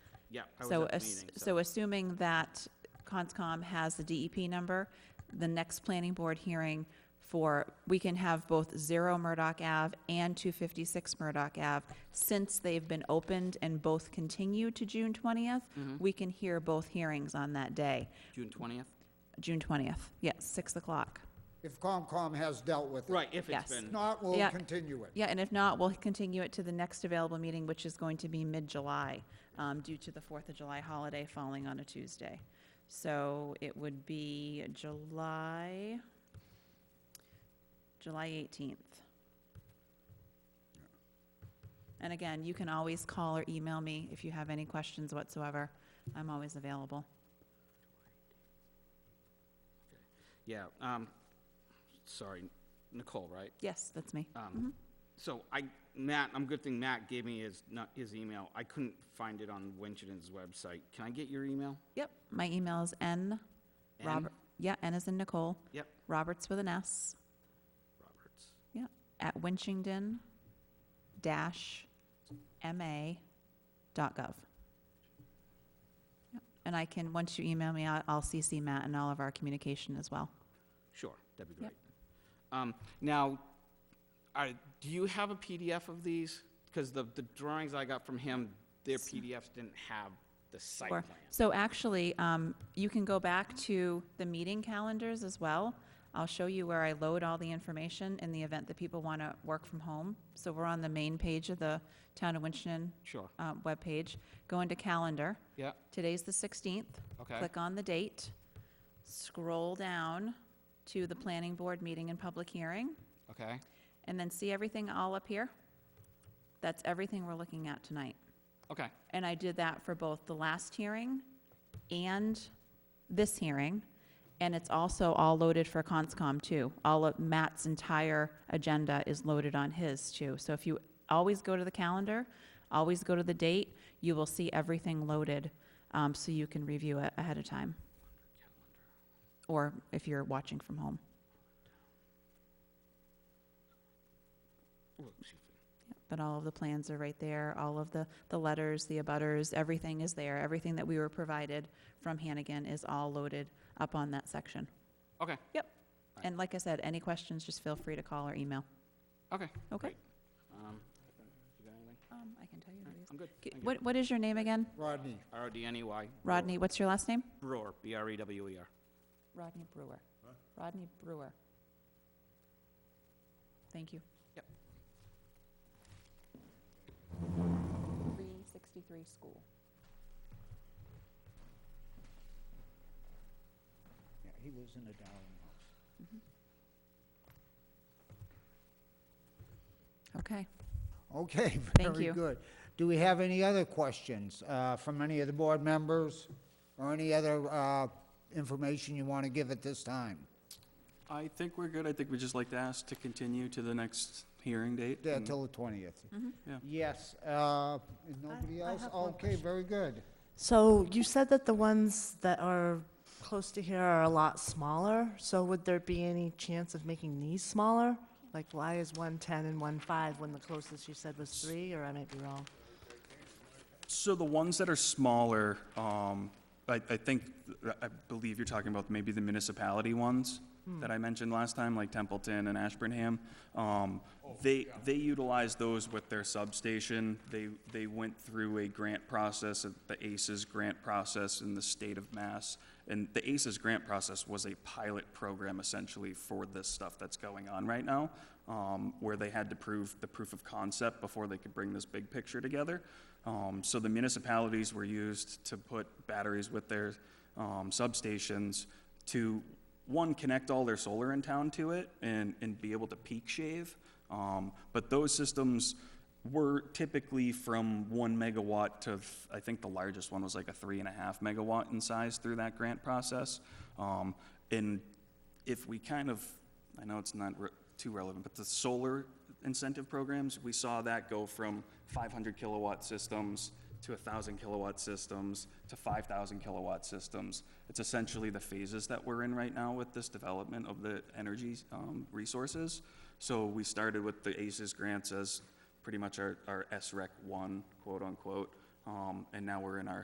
yeah, I was So, at the ass- meeting, so assuming that CONSCOM has the DEP number, the next planning board hearing for, we can have both zero Murdoch Ave and two fifty-six Murdoch Ave, since they've been opened and both continue to June twentieth, Mm-hmm. we can hear both hearings on that day, June twentieth? June twentieth, yes, six o'clock. If COMCOM has dealt with it. Right, if Yes. it's been, If not, we'll Yeah. continue it. Yeah, and if not, we'll continue it to the next available meeting, which is going to be mid-July, um, due to the Fourth of July holiday falling on a Tuesday. So it would be July, July eighteenth. And again, you can always call or email me if you have any questions whatsoever. I'm always available. yeah, um, sorry, Nicole, right? Yes, that's me. Mm-hmm. Um, So I, Matt, I'm, good thing Matt gave me his, not, his email. I couldn't find it on Winchendon's website. Can I get your email? Yep, my email is N. N? Robert. Yeah, N is in Nicole, Yep, Roberts with an S. Roberts. Yeah, at winchington dash ma dot gov. Yep, And I can, once you email me, I- I'll CC Matt and all of our communication as well. Sure, that'd be Yep. great. Um, Now, are- do you have a PDF of these? Because the, the drawings I got from him, their PDFs didn't have the site Or- plan. So actually, um, you can go back to the meeting calendars as well. I'll show you where I load all the information in the event that people want to work from home. So we're on the main page of the Town of Winchton Sure, uh, webpage. Go into calendar. yeah, Today's the 16th. Okay. Click on the date, scroll down to the planning board meeting and public hearing, okay, and then see everything all up here? That's everything we're looking at tonight. okay, And I did that for both the last hearing and this hearing. And it's also all loaded for CONSCOM too. All of Matt's entire agenda is loaded on his too. So if you always go to the calendar, always go to the date, you will see everything loaded, um, so you can review it ahead of time. Or if you're watching from home. Ooh, excuse me. But all of the plans are right there, all of the, the letters, the abutters, everything is there. Everything that we were provided from Hannigan is all loaded up on that section. okay, Yep. And like I said, any questions, just feel free to call or email. okay. Okay? Um, You got anything? Um, I can tell you. All who right, it is. I'm good. K- Thank you. What, what is your name again? Rodney, R O D N E Y. Rodney, what's your last name? Brewer, B R E W E R. Rodney Brewer. Rodney Brewer. Thank you. Yep. 363 School. yeah, he lives in a Darling house. Okay. Okay, Thank very you. good. Do we have any other questions uh, from any of the board members or any other uh, information you want to give at this time? I think we're good. I think we just like to ask to continue to the next hearing date. Yeah, and- Till the 20th? Yeah. Yes, uh, is nobody Mm-hmm. I else? have one Okay, very good. So you said that the ones that are close to here are a lot smaller, so would there be any chance of making these smaller? Like, why is one ten and one five when the closest you said was three, or I might be wrong? So the ones that are smaller, um, I, I think, I believe you're talking about maybe the municipality ones Hmm. that I mentioned last time, like Templeton and Ashburnham. Um, they, they utilize those with their substation. They, they went through a grant process, uh, the ACES grant process in the state of Mass. And the ACES grant process was a pilot program essentially for this stuff that's going on right now, um, where they had to prove the proof of concept before they could bring this big picture together. Um, so the municipalities were used to put batteries with their um, substations to one connect all their solar in town to it and, and be able to peak shave. Um, but those systems were typically from one megawatt to I think the largest one was like a three and a half megawatt in size through that grant process. Um, and if we kind of, I know it's not re- too relevant, but the solar incentive programs, we saw that go from 500 kilowatt systems to 1,000 kilowatt systems to 5,000 kilowatt systems. It's essentially the phases that we're in right now with this development of the energy um, resources. So we started with the E ACES grants as pretty much our, our SREC one, quote unquote, um, and now we're in our